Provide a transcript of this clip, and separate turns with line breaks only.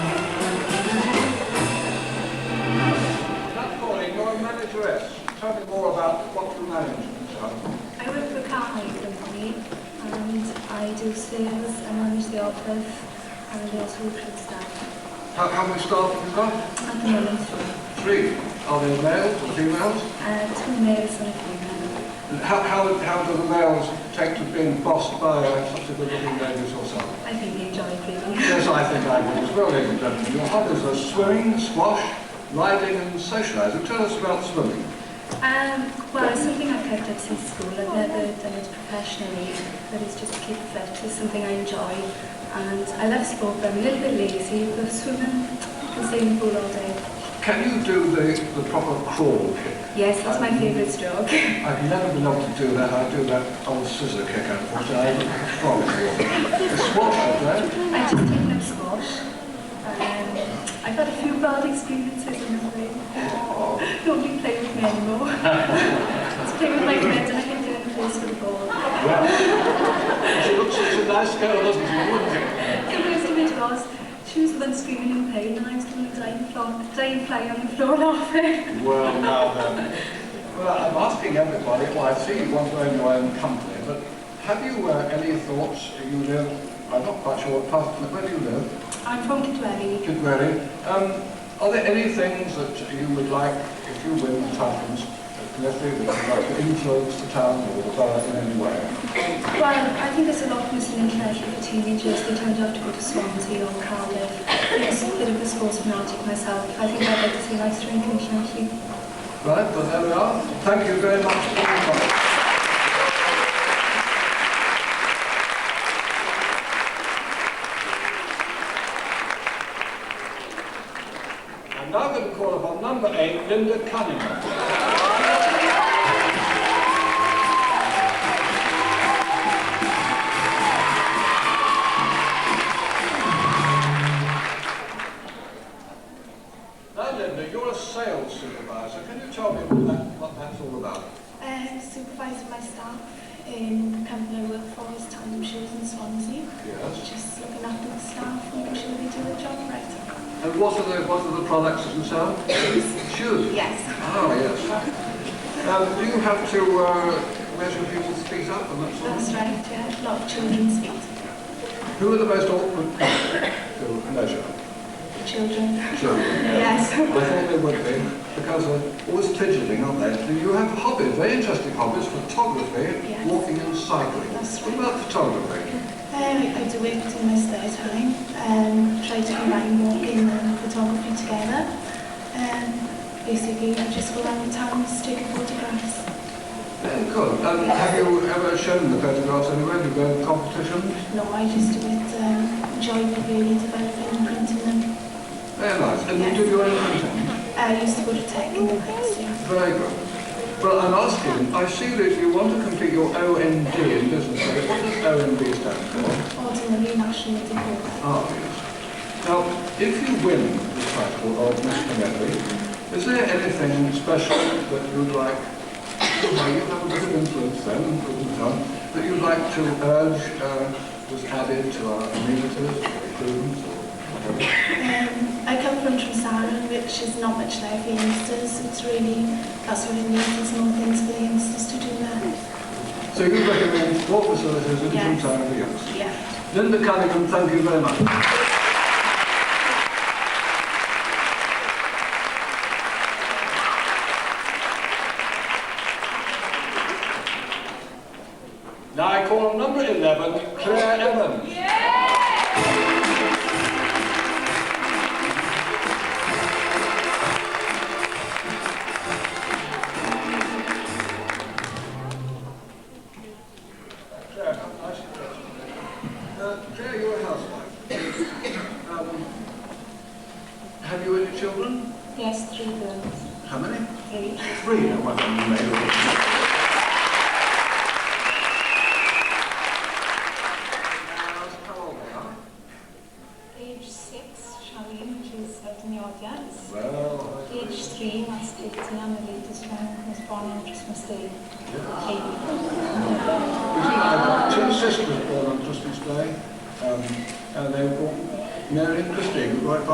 about property management, Charlie?
I work for Cartwright Company and I do sales, I manage the office and I also recruit staff.
How, how many staff have you got?
At the moment,
Three. Are they males or females?
uh, two males and a female.
And how, how, how do the males take to being bossed by uh, such a good-looking lady as yourself?
I think they enjoy it really.
Yes, I think I would as well, ladies and gentlemen. Your hobbies are swimming, squash, riding and socialising. Tell us about swimming.
Um, well, it's something I've kept up since school. I've never done it professionally, but it's just to keep fit. It's something I enjoy. And I love sport, but I'm a little bit lazy. But swimming, I can stay in the pool all day.
Can you do the, the proper crawl kick?
Yes, that's my favourite stroke.
I've never been able to do that. I do that old scissor kick, unfortunately. I haven't got strong for it. The squash, I do.
I just taken up squash. Um, I've had a few bad experiences in the way. Nobody play with me anymore. Just play with my friends and I can do it place with the ball.
Well, she looks such a nice girl, doesn't she? Wouldn't she?
The worst of it was, she was the one screaming in pain and I was doing a dying, fly, dying fly on the floor laughing.
Well, now then. Well, I'm asking everybody, well, I see you want to own your own company, but have you uh, any thoughts? You live, I'm not quite sure what part, where do you live?
I'm from Kitwelly.
Kidwelly. Um, are there any things that you would like, if you win the towns, let's say that you'd like to influence the town or the borough in any way?
Well, I think there's a lot missing in Connecticut for teenagers. They tend to have to go to Swansea or Cardiff. It's a bit of a sports fanatic myself. I think I'd like to see nice drinking in Connecticut.
Right, well, there we are. Thank you very much for your time. I'm now going to call upon number eight, Linda Cunningham. Now, Linda, you're a sales supervisor. Can you tell me what, that, what that's all about?
Um, supervising my staff in company I work for is Tandem Shoes in Swansea.
Yes.
Just looking after the staff, making sure they do their job right.
And what are the, what are the products that you sell? Shoes.
Yes.
Oh, yes. Um, do you have to uh, measure people's feet up and that sort of
That's right, yeah. A lot of children's feet.
Who are the most awkward people to measure?
Children. Um,
Children. I
Yes.
thought they would be, because they're always fidgeting, aren't they? Do you have hobbies, very interesting hobbies, photography,
Yes.
walking and cycling.
That's
What about photography?
Um, I do it in my spare time. Um, try to combine walking and uh, photography together. Um, basically, I just go around the towns taking photographs.
Very good. Um, have you ever shown the photographs anywhere? Do you go to competitions?
No, I just do it, um, enjoy really developing and printing them.
Very nice. And you do your own printing?
I used to go to tech in the past, yeah.
Very good. Well, I'm asking, I see that you want to complete your OND in business. studies. What does OND stand for?
ordinary national diploma.
Ah, yes. Now, if you win the title of Mr. Medley, is there anything special that you'd like, well, you have a bit of influence then, wouldn't you, that you'd like to urge uh, was added to our amenities, or improvements, or whatever?
Um, I come from Trumsaran, which is not much there for youngsters. It's really, that's what it needs, there's more things for the youngsters to do there.
So you recommend what facilities in
Yes.
Town for youngsters?
Yeah.
Linda Cunningham, thank you very much. Now I call on number 11, Claire Evans. Claire, how nice of you. Uh, Claire, you're a housewife. Um, Have you any children?
Yes, three girls.
How many?
Three.
Three, I wonder you may have. How old they are?
Age six, Charlene, she's out in the audience.
Well,
Age three, that's Katie, and the latest one who was born on Christmas Day. Katie.
I've got two sisters born on Christmas Day, um, and they were called Mary and Christine, right